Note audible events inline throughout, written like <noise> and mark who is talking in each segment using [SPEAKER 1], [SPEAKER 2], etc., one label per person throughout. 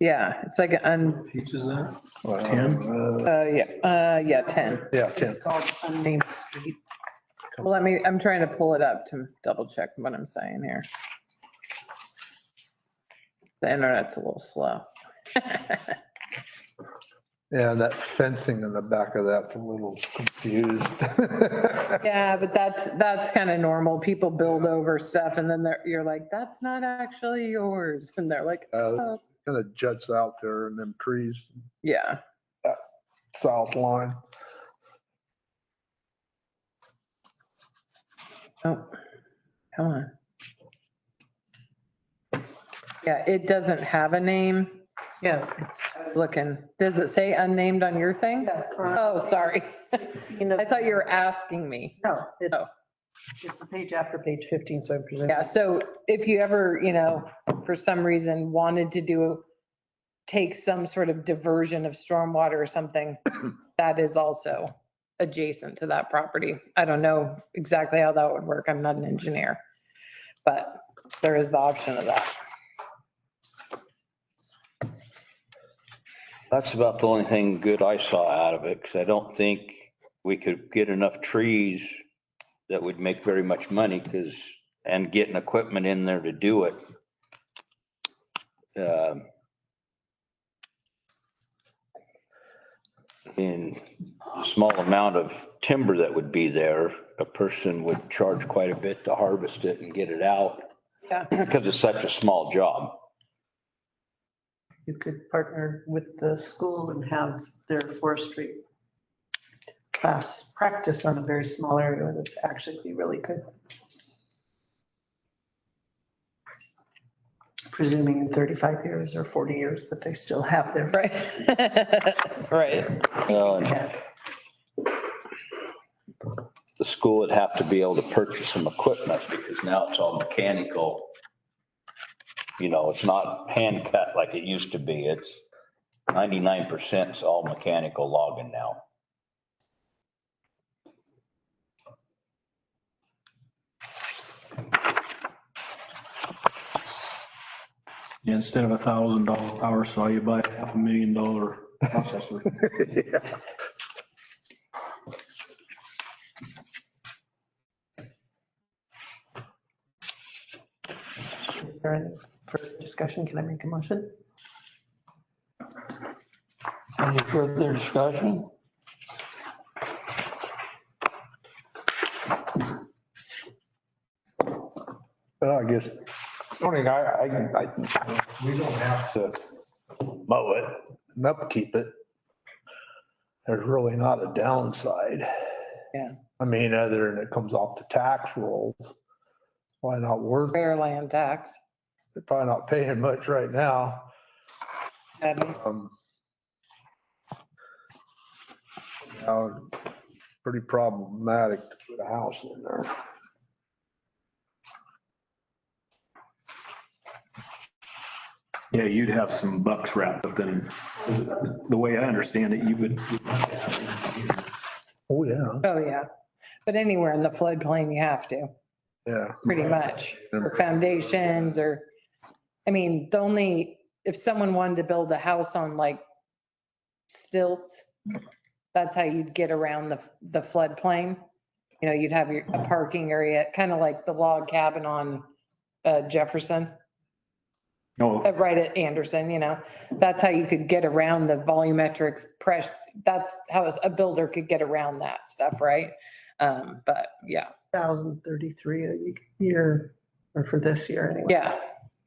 [SPEAKER 1] Yeah, it's like an,
[SPEAKER 2] Peach is that?
[SPEAKER 1] un-
[SPEAKER 2] Ten?
[SPEAKER 1] uh, yeah, uh, yeah, 10.
[SPEAKER 2] Yeah, ten.
[SPEAKER 1] It's called unnamed street. Well, let me, I'm trying to pull it up to double check what I'm saying here. The internet's a little slow.
[SPEAKER 2] Yeah, that fencing in the back of that's a little confused. <laughs>
[SPEAKER 1] Yeah, but that's, that's kind of normal. People build over stuff and then they're, you're like, that's not actually yours. And they're like,
[SPEAKER 2] Kind
[SPEAKER 1] oh,
[SPEAKER 2] of Uh, juts out there and them trees,
[SPEAKER 1] yeah.
[SPEAKER 2] south line.
[SPEAKER 1] Oh, come on. Yeah, it doesn't have a name.
[SPEAKER 3] Yeah.
[SPEAKER 1] Looking, does it say unnamed on your thing? Oh, sorry. <laughs> I
[SPEAKER 3] I
[SPEAKER 1] thought you were asking me.
[SPEAKER 3] No,
[SPEAKER 1] Oh.
[SPEAKER 3] it's, it's the page after page 15, so I'm presuming.
[SPEAKER 1] Yeah, so if you ever, you know, for some reason wanted to do, take some sort of diversion of stormwater or something, that is also adjacent to that property. I don't know exactly how that would work. I'm not an engineer. But there is the option of that. <laughs>
[SPEAKER 4] That's about the only thing good I saw out of it, because I don't think we could get enough trees that would make very much money, because, and getting equipment in there to do it. Um, In the small amount of timber that would be there, a person would charge quite a bit to harvest it and get it out, <clears throat>
[SPEAKER 1] Yeah.
[SPEAKER 4] because it's such a small job.
[SPEAKER 3] You could partner with the school and have their forestry class practice on a very small area would actually be really good. Presuming in 35 years or 40 years that they still have their.
[SPEAKER 1] Right. Right.
[SPEAKER 4] Well, and the school would have to be able to purchase some equipment because now it's all mechanical. You know, it's not hand cut like it used to be. It's ninety-nine percent is all mechanical logging now.
[SPEAKER 5] Yeah, Instead of a thousand dollar power saw, you buy a half a million dollar processor.
[SPEAKER 2] Yeah.
[SPEAKER 3] Is there any further discussion? Can I make a motion?
[SPEAKER 6] Any further discussion?
[SPEAKER 2] But I guess, only I, I, I, we don't have to mow it and upkeep it. There's really not a downside.
[SPEAKER 1] Yeah.
[SPEAKER 2] I mean, other than it comes off the tax rolls. Why not worth, it?
[SPEAKER 1] Fair land tax.
[SPEAKER 2] they're probably not paying much right now.
[SPEAKER 1] Um,
[SPEAKER 2] Um, now, Pretty problematic to put a house in there.
[SPEAKER 5] Yeah, you'd have some bucks wrapped up in, the way I understand it, you would,
[SPEAKER 2] Oh, yeah,
[SPEAKER 1] Oh, yeah. But anywhere in the floodplain, you have to,
[SPEAKER 2] yeah.
[SPEAKER 1] pretty much, for foundations or, I mean, the only, if someone wanted to build a house on like stilts, that's how you'd get around the, the floodplain. You know, you'd have your, a parking area, kind of like the log cabin on uh, Jefferson.
[SPEAKER 5] no, oh,
[SPEAKER 1] Uh, right at Anderson, you know, that's how you could get around the volumetric pressure. That's how a builder could get around that stuff, right? Um, but yeah,
[SPEAKER 3] 1,033 a year, or for this year anyway.
[SPEAKER 1] yeah,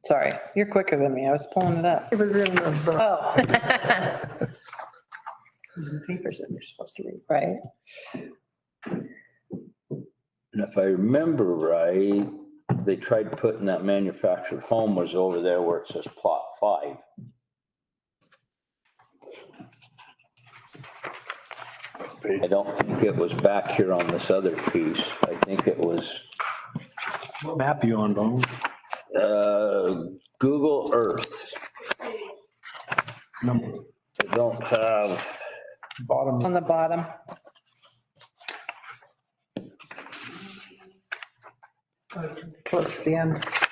[SPEAKER 1] sorry, you're quicker than me. I was pulling it up.
[SPEAKER 3] It was in the, book.
[SPEAKER 1] Oh. <laughs>
[SPEAKER 3] it was in the papers that you're supposed to read.
[SPEAKER 1] Right,
[SPEAKER 4] And if I remember right, they tried putting that manufactured home was over there where it says plot five. I don't think it was back here on this other piece. I think it was
[SPEAKER 5] what map you on, Donald?
[SPEAKER 4] uh, Google Earth.
[SPEAKER 5] Number-
[SPEAKER 4] I don't have,
[SPEAKER 2] Bottom,
[SPEAKER 1] on the bottom.
[SPEAKER 3] Close to the end.
[SPEAKER 1] Oh.